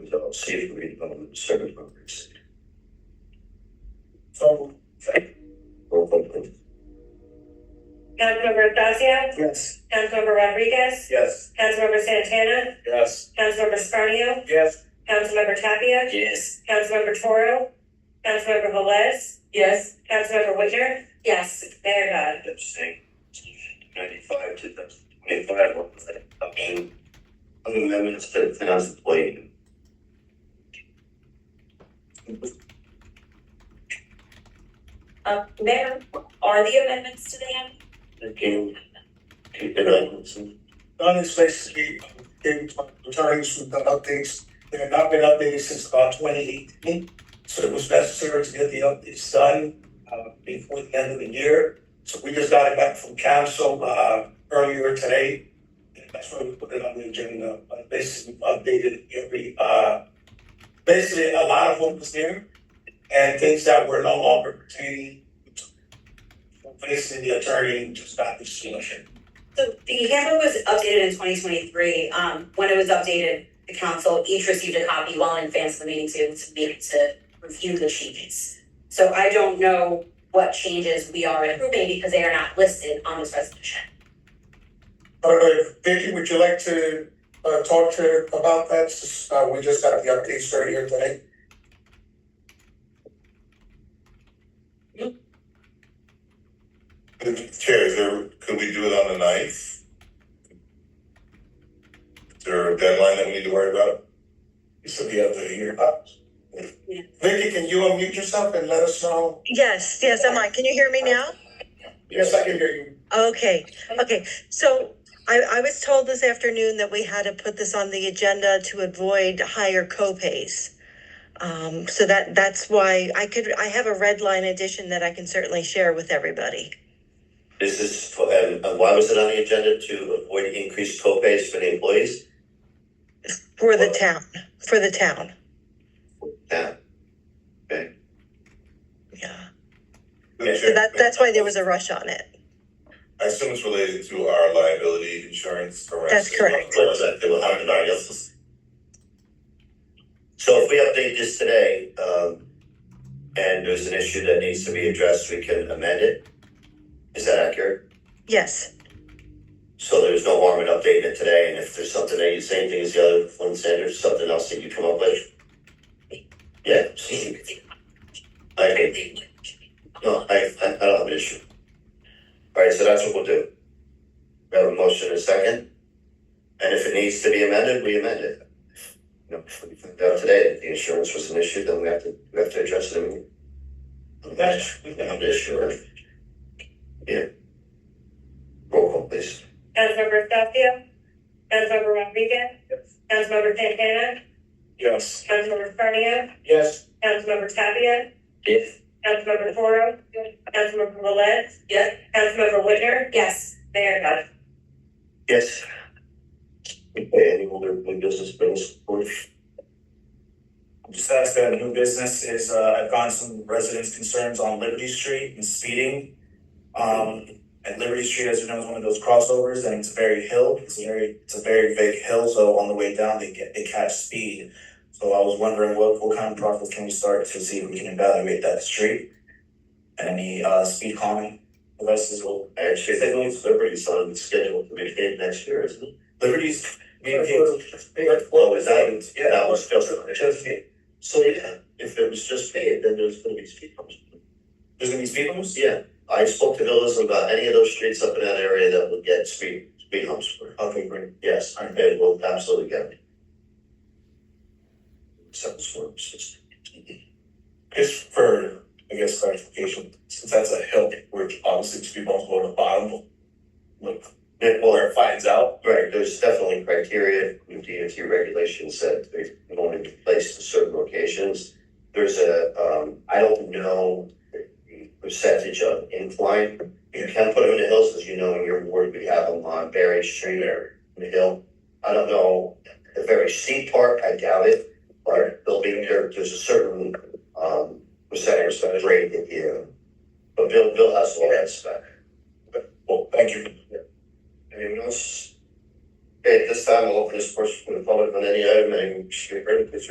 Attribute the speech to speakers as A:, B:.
A: on safe redevelopment service boundaries. So. Roll call please.
B: Councilmember Thacia,
A: Yes.
B: Councilmember Rodriguez,
A: Yes.
B: Councilmember Santana,
A: Yes.
B: Councilmember Scarnio,
A: Yes.
B: Councilmember Tapia,
A: Yes.
B: Councilmember Toro, Councilmember Velez. Yes. Councilmember Whitner. Yes. Mayor Dodd.
A: Abstain. Ninety-five to the twenty-five on the adoption of amendments to the finance plan.
B: Um, Mayor, are the amendments to the end?
A: Again, Peter Atkinson.
C: Not especially David returns from the updates. They have not been updated since about twenty eighteen. So it was necessary to get the updates done uh before the end of the year. So we just got it back from council uh earlier today. And that's why we put it on the agenda, but basically we updated every uh basically a lot of what was there and things that were no longer pertaining. Basically, the attorney just got the solution.
D: So the handbook was updated in twenty twenty-three, um, when it was updated, the council each received a copy well in advance of the meeting to, to be, to review the changes. So I don't know what changes we are approving because they are not listed on this resolution.
C: All right, uh, Vicky, would you like to uh talk to about that? Since, Uh we just got the updates right here today.
E: Chair, is there, could we do it on the ninth? Is there a deadline that we need to worry about?
C: This will be up to you. Uh,
D: Yeah.
C: Vicky, can you unmute yourself and let us know?
F: Yes, yes, I'm on. Can you hear me now?
C: Yes, I can hear you.
F: Okay, okay. So I, I was told this afternoon that we had to put this on the agenda to avoid higher copays. Um, so that that's why I could I have a red line edition that I can certainly share with everybody.
A: This is for, and, and why was it on the agenda to avoid increased co-pays for the employees?
F: For the town, for the town.
A: Yeah.
F: Yeah. So
E: Chair,
F: that that's why there was a rush on it.
E: I assume it's related to our liability insurance. around-
F: That's correct.
A: What was that? They were on the nine else's. So if we update this today, um, and there's an issue that needs to be addressed, we can amend it? Is that accurate?
F: Yes.
A: So there's no harm in updating it today, and if there's something that you, same thing as the other one said, or something else that you come up with? Yeah, see? I think, no, I, I, I don't have an issue. All right, so that's what we'll do. We have a motion and a second. And if it needs to be amended, we amend it. You know, if we find out today that the insurance was an issue, then we have to, we have to address it immediately.
C: That's-
A: We have an issue, right? Yeah. Roll call, please.
B: Councilmember Thacia, Councilmember Rodriguez,
C: Yes.
B: Councilmember Santana,
C: Yes.
B: Councilmember Scarnio,
C: Yes.
B: Councilmember Tapia,
A: Yes.
B: Councilmember Toro, Councilmember Velez,
D: Yes.
B: Councilmember Whitner,
D: Yes,
B: Mayor Dodd.
A: Yes. Okay, any older new business bills, please?
G: Just ask that new business is, uh, I've gotten some residents' concerns on Liberty Street and speeding. Um, and Liberty Street, as you know, is one of those crossovers and it's a very hill, it's a very, it's a very big hill, so on the way down, they get, they catch speed. So I was wondering what, what kind of process can we start to see if we can evaluate that street? And any, uh, speed calming, the rest is all,
A: Actually, they don't have Liberty Sun scheduled to be paid next year, isn't it?
G: Liberty's, being
A: Well, is that, yeah, that was just, just, so yeah, if it was just paid, then there's gonna be speed bumps.
G: there's gonna be speed bumps?
A: Yeah, I spoke to Villas about any of those streets up in that area that would get speed, speed humps for,
G: Okay, great.
A: yes, it will absolutely get it. Sounds sort of system.
C: Just for, I guess, clarification, since that's a hill, we're obviously to be multiple on the bottom. Look,
A: Yeah, well,
C: it finds out.
A: Right, there's definitely criteria, the DOT regulations that they only place in certain locations. There's a, um, I don't know the percentage of incline. You can put them in the hills, as you know, in your ward, we have them on Berry Street or in the hill. I don't know, the very steep part, I doubt it, but there'll be, there, there's a certain, um, percentage of grade that you. But Bill, Bill has all that stuff.
C: Well, thank you.
A: Anyone else? Okay, at this time, I'll open this portion for the public on any item, and should we ready, please raise